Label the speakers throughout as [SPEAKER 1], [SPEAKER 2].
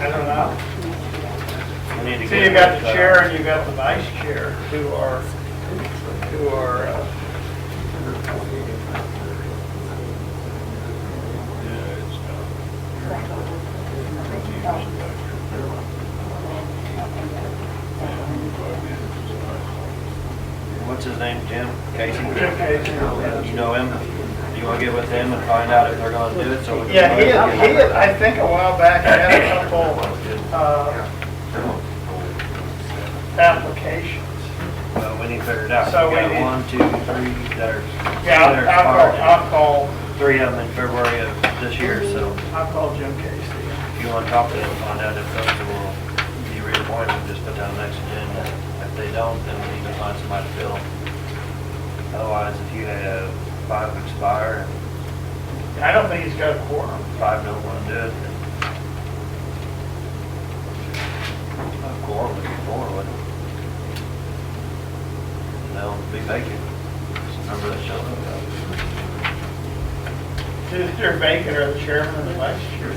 [SPEAKER 1] out.
[SPEAKER 2] We need to
[SPEAKER 1] So
[SPEAKER 2] get
[SPEAKER 1] you got
[SPEAKER 2] with,
[SPEAKER 1] the
[SPEAKER 2] uh,
[SPEAKER 1] chair and you got the vice chair who are, who are, uh,
[SPEAKER 2] What's his name, Jim? Casey?
[SPEAKER 1] okay.
[SPEAKER 2] You know him? You wanna get with him and find out if they're gonna do it, so we can...
[SPEAKER 1] Yeah, he had, he had, I think a while back, had a couple, uh, applications.
[SPEAKER 2] Well, we need to figure it out.
[SPEAKER 1] So
[SPEAKER 2] We
[SPEAKER 1] we
[SPEAKER 2] got
[SPEAKER 1] need-
[SPEAKER 2] one, two, three, there's...
[SPEAKER 1] Yeah,
[SPEAKER 2] there's
[SPEAKER 1] I'll,
[SPEAKER 2] five.
[SPEAKER 1] I'll call,
[SPEAKER 2] Three of them in February of this year, so
[SPEAKER 1] I'll call Jim Casey.
[SPEAKER 2] if you wanna talk to them, find out if those will be reappointed, just put down next agenda. If they don't, then we need to find somebody to fill. Otherwise, if you have five expire and
[SPEAKER 1] I don't think he's got a quorum.
[SPEAKER 2] five don't wanna do it, then... A quorum would be four, wouldn't it? No, it'd be vacant. Remember that show?
[SPEAKER 1] Is there vacant or the chairman and the vice chair?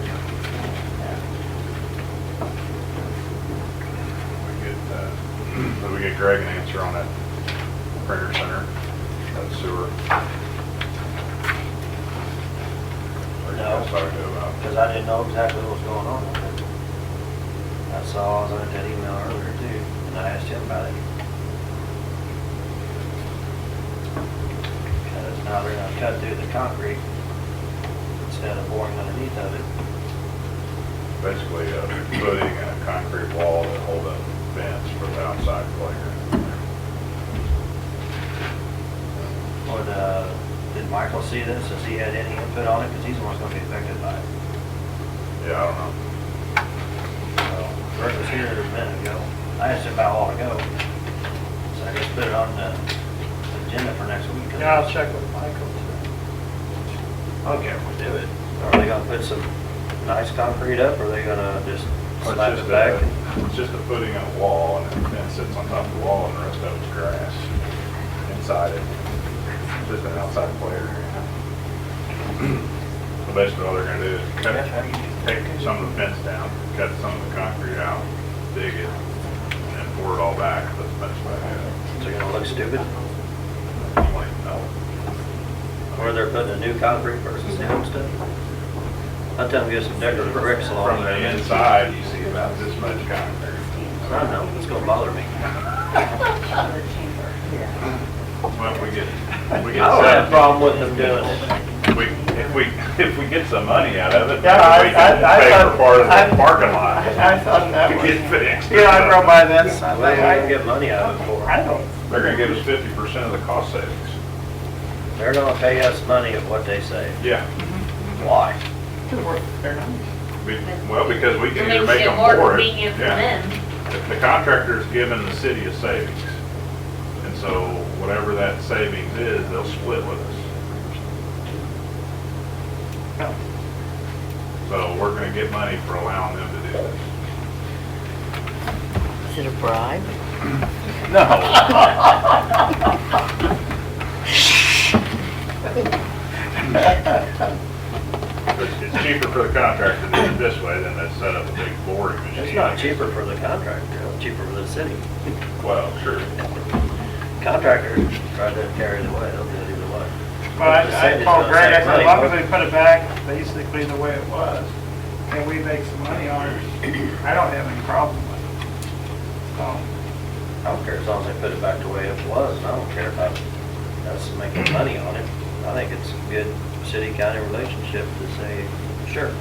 [SPEAKER 3] We get, uh, so we get Greg an answer on that printer center, that sewer. Or
[SPEAKER 2] No.
[SPEAKER 3] that's what I do about.
[SPEAKER 2] Because I didn't know exactly what was going on with it. I saw, I was on that email earlier too, and I asked him about it. Because now they're gonna cut through the concrete instead of boring underneath of it.
[SPEAKER 3] Basically, uh, putting a concrete wall to hold up vents for the outside playground.
[SPEAKER 2] Would, uh, did Michael see this? Has he had any input on it? Because he's the one that's gonna be affected by it.
[SPEAKER 3] Yeah, I don't know.
[SPEAKER 2] So, Greg was here a minute ago. I asked him about all ago. So I just put it on the agenda for next week. 'cause
[SPEAKER 1] Yeah, I'll check with Michael too.
[SPEAKER 2] I don't care if we do it. Are they gonna put some nice concrete up, or are they gonna just
[SPEAKER 3] It's
[SPEAKER 2] slap
[SPEAKER 3] just
[SPEAKER 2] it
[SPEAKER 3] a-
[SPEAKER 2] back?
[SPEAKER 3] It's just a footing on a wall and then it sits on top of the wall and the rest of it's grass inside it. Just an outside player. So basically all they're gonna do is cut,
[SPEAKER 2] That's right.
[SPEAKER 3] take some of the fence down, cut some of the concrete out, dig it, and then pour it all back, put the fence back in.
[SPEAKER 2] Is it gonna look stupid?
[SPEAKER 3] Like, no.
[SPEAKER 2] Or they're putting a new concrete versus the old stuff? I'll tell them get some decorative bricks along
[SPEAKER 3] From the
[SPEAKER 2] there.
[SPEAKER 3] inside, you see about this much concrete.
[SPEAKER 2] I don't know, it's gonna bother me.
[SPEAKER 3] Well, we get, we
[SPEAKER 2] I
[SPEAKER 3] get.
[SPEAKER 2] don't have a
[SPEAKER 3] seven-
[SPEAKER 2] problem with them doing it.
[SPEAKER 3] We, if we, if we get some money out of it,
[SPEAKER 1] Yeah, I-
[SPEAKER 3] we can
[SPEAKER 1] I- I
[SPEAKER 3] pay for
[SPEAKER 1] thought-
[SPEAKER 3] part of
[SPEAKER 1] I-
[SPEAKER 3] the parking lot.
[SPEAKER 1] I I thought that was.
[SPEAKER 3] Get fixed.
[SPEAKER 1] Yeah, I drove by this. I
[SPEAKER 2] Well, we can
[SPEAKER 1] think
[SPEAKER 2] get money out of it for
[SPEAKER 1] I I
[SPEAKER 2] it.
[SPEAKER 1] don't,
[SPEAKER 3] They're gonna give us fifty percent of the cost savings.
[SPEAKER 2] They're gonna pay us money of what they say.
[SPEAKER 3] Yeah.
[SPEAKER 2] Why?
[SPEAKER 1] they're nice.
[SPEAKER 3] We- Well, because we can
[SPEAKER 4] It
[SPEAKER 3] either
[SPEAKER 4] makes
[SPEAKER 3] make
[SPEAKER 4] it
[SPEAKER 3] them
[SPEAKER 4] more
[SPEAKER 3] for it.
[SPEAKER 4] convenient for
[SPEAKER 3] Yeah.
[SPEAKER 4] them.
[SPEAKER 3] The- The contractor's giving the city a savings. And so whatever that savings is, they'll split with us. So we're gonna get money for allowing them to do this.
[SPEAKER 5] Is it a bribe?
[SPEAKER 3] No. It's cheaper for the contractor to do it this way than to set up a big boring machine.
[SPEAKER 2] It's not cheaper for the contractor, it's cheaper for the city.
[SPEAKER 3] Well, sure.
[SPEAKER 2] Contractor, try to carry the way, they'll do it either way.
[SPEAKER 1] But
[SPEAKER 2] Just
[SPEAKER 1] I
[SPEAKER 2] saying
[SPEAKER 1] I
[SPEAKER 2] it's
[SPEAKER 1] told
[SPEAKER 2] gonna
[SPEAKER 1] Greg, I
[SPEAKER 2] save
[SPEAKER 1] said, as
[SPEAKER 2] money.
[SPEAKER 1] long as they put it back basically the way it was, and we make some money on it, I don't have any problem with it. So,
[SPEAKER 2] I don't care as long as they put it back the way it was, and I don't care about us making money on it. I think it's a good city-county relationship to say, sure,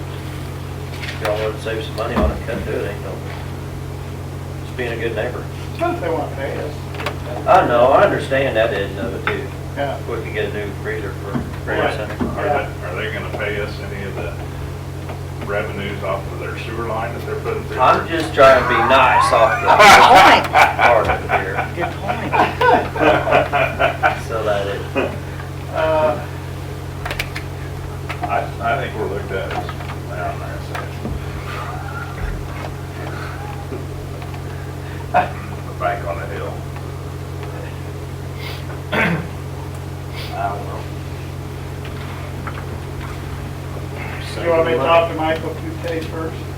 [SPEAKER 2] if y'all want to save some money on it, cut through it, ain't no, it's being a good neighbor.
[SPEAKER 1] since they want to pay us.
[SPEAKER 2] I know, I understand that end of it too.
[SPEAKER 1] Yeah.
[SPEAKER 2] We could get a new freezer for
[SPEAKER 3] Are
[SPEAKER 2] Grand Center.
[SPEAKER 3] they, are they gonna pay us any of the revenues off of their sewer line that they're putting through?
[SPEAKER 2] I'm just trying to be nice off the
[SPEAKER 5] Good point.
[SPEAKER 2] part of it here,
[SPEAKER 5] Good point.
[SPEAKER 2] so that it,
[SPEAKER 1] Uh,
[SPEAKER 3] I, I think we're looked at as, I don't know, it's a bank on a hill.
[SPEAKER 2] I don't know.
[SPEAKER 1] You want me to talk to Michael Coupe first?